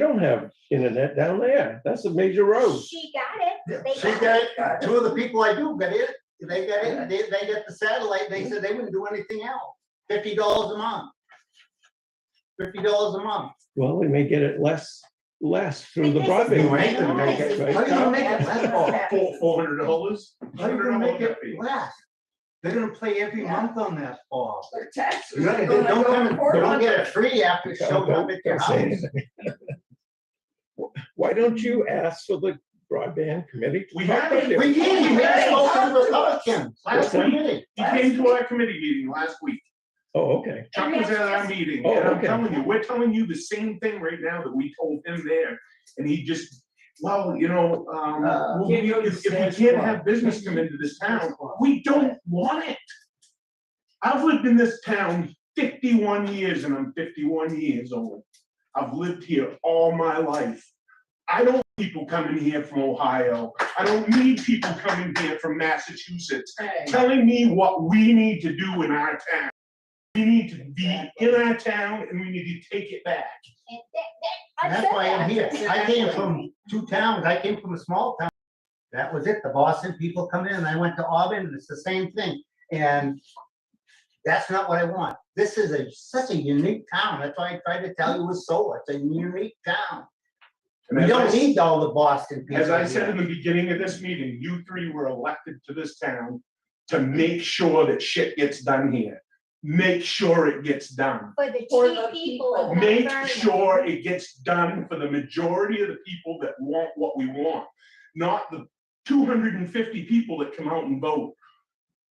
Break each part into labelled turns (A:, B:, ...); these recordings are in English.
A: don't have internet down there. That's a major road.
B: She got it. They
C: She got, it. two of the people I do got it, they got it, they, they got the satellite, they said they wouldn't do anything else, fifty dollars a month. Fifty dollars a month.
A: Well, we may get it less, less through the
B: Because
A: broadband.
B: it's-
D: Right, they're gonna
A: rate,
D: get-
C: How
A: right?
C: you gonna make it less?
B: Oh,
D: Four, four hundred dollars?
C: How you gonna make it less? They're gonna play every month on that ball.
D: Their taxes.
C: They don't come and- they don't get it free after it shows up at your
A: Don't say
C: house.
A: anything. Why don't you ask for the broadband committee? to
D: We
A: talk
D: have it.
A: about it?
C: We did, we had it all to the Republicans, last
A: Listen.
C: meeting.
B: He
D: He came
B: came
D: to our committee meeting last week.
A: Oh, okay.
D: Chuck was at our meeting,
A: Oh,
D: and I'm
A: okay.
D: telling you, we're telling you the same thing right now that we told him there. And he just, well, you know, um,
C: Uh,
D: we'll
E: can't
D: be-
E: go to
D: if if we
E: Sam's
D: can't
E: Club.
D: have business come into this town, we don't want it. I've lived in this town fifty-one years and I'm fifty-one years old. I've lived here all my life. I don't need people coming here from Ohio. I don't need people coming here from Massachusetts telling me what we need to do in our town. We need to be in our town and we need to take it back.
B: And that- that-
C: And
B: I
C: that's
B: said
C: why I'm
B: that.
C: here. I came from two towns. I came from a small town. That was it. The Boston people come in and I went to Auburn and it's the same thing. And that's not what I want. This is a, such a unique town. That's why I tried to tell you with solar. It's a unique town.
D: And
C: We
D: as I
C: don't need all the Boston people.
D: As I said in
C: here.
D: the beginning of this meeting, you three were elected to this town to make sure that shit gets done here. Make sure it gets done.
B: For the
E: For
B: cheap
E: the
B: people. of Mount
D: Make
B: Vernon.
D: sure it gets done for the majority of the people that want what we want, not the two hundred and fifty people that come out and vote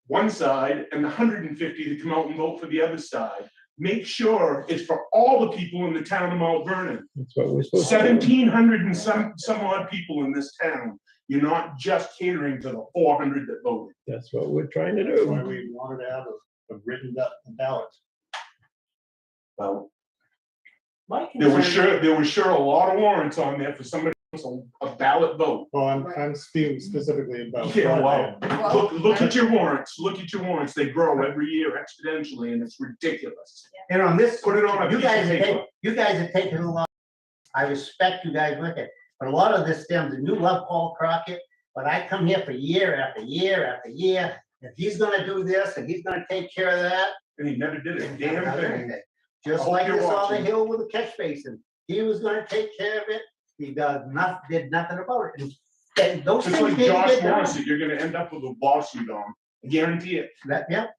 D: one side and the hundred and fifty that come out and vote for the other side. Make sure it's for all the people in the town of Mount Vernon.
A: That's what we're supposed to do.
D: Seventeen hundred and some, some odd people in this town. You're not just catering to the four hundred that voted.
A: That's what we're trying to
F: That's why
A: do.
F: we wanted to have a, a written up ballot.
D: Well.
E: My
D: There was
E: concern-
D: sure, there was sure a lot of warrants on there for somebody, else, a a ballot vote.
F: Well, I'm, I'm speaking specifically about.
D: Yeah, wow.
F: broadband.
D: Look, look at your warrants, look at your warrants. They grow every year exponentially and it's ridiculous.
C: And on this,
D: Put it on a
C: you
D: piece of
C: guys are,
D: paper.
C: ta- you guys are taking a lot. I respect you guys with it, but a lot of this stems, and you love Paul Crockett, but I come here for year after year after year. If he's gonna do this and he's gonna take care of that.
D: And he never did a
C: and
D: damn thing. I
C: Just
D: hope
C: like
D: you're
C: this on the
D: watching.
C: hill with the catch basin. He was gonna take care of it. He does not, did nothing about it. And- And those
D: Just
C: things
D: like
C: didn't
D: Josh
C: get done.
D: Morrissey, you're gonna end up with a lawsuit on, him. guarantee it.
C: That, yep.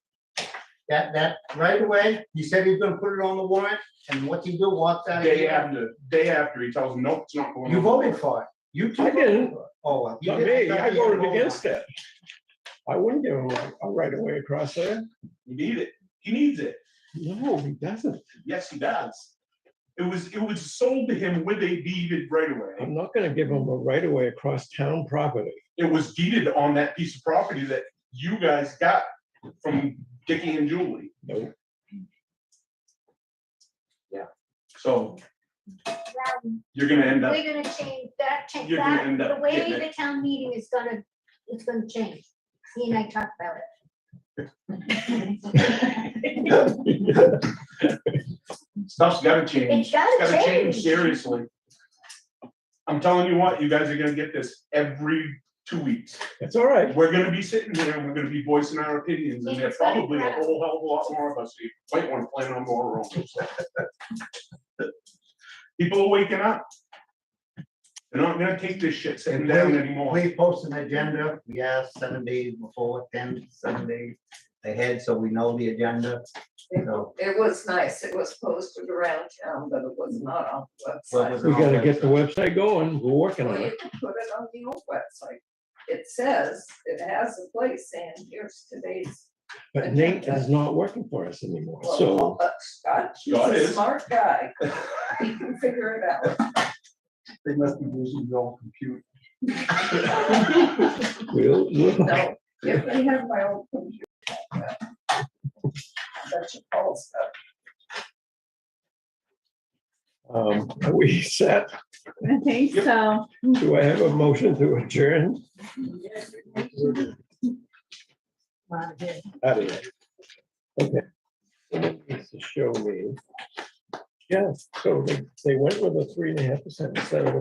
C: That, that right away, he said he's gonna put it on the warrant and what's he do? Walks out of
D: Day
C: here.
D: after, day after, he tells them, nope, it's not going on.
C: You voted for it. You two.
A: I didn't.
C: Oh. well, you
A: Not
C: didn't.
A: me, I
C: thought you
A: voted against it. I wouldn't give him a- a right of way across there.
D: You need it. He needs it.
A: No, he doesn't.
D: Yes, he does. It was, it was sold to him with a deeded right away.
A: I'm not gonna give him a right of way across town property.
D: It was deeded on that piece of property that you guys got from Dickie and Julie.
A: No,
D: So
B: Well,
D: you're gonna end up,
B: We're gonna change that, change
D: You're gonna
B: that,
D: end up
B: the way
D: getting it.
B: the town meeting is gonna, it's gonna change. He and I talked about it.
D: stuff's gotta change.
B: It's
D: It's
B: gotta
D: gotta change
B: change.
D: seriously. I'm telling you what, you guys are gonna get this every two weeks.
A: that's all right.
D: We're gonna be sitting here and we're gonna be voicing our opinions and there's probably a whole hell of a lot more of us. who might wanna plan on more rooms. People are waking up. They're not gonna take this shit sitting down anymore.
C: We post an agenda, we ask seven days before, ten, seven days ahead, so we know the agenda. So,
E: It was nice. It was posted around town, but it was not on the
C: Well,
E: website.
C: was
A: We gotta get the website going. We're working on
E: Well,
A: it.
E: you can put it on the old website. It says, it has a place and here's today's.
A: But Nate is not working for us anymore,
E: well,
A: so
E: uh, Scott, he's
D: Scott
E: a
D: is.
E: smart guy. He can figure it out.
F: They must be using their own computer.
A: we'll, we'll-
E: No, if they have my old computer. That's your call stuff.
A: um, are we set?
G: I think
D: Yep.
G: so.
A: Do I have a motion to adjourn? Out of there. Okay. Needs to Show me. Yeah, so they, they went with a three and a half percent instead of a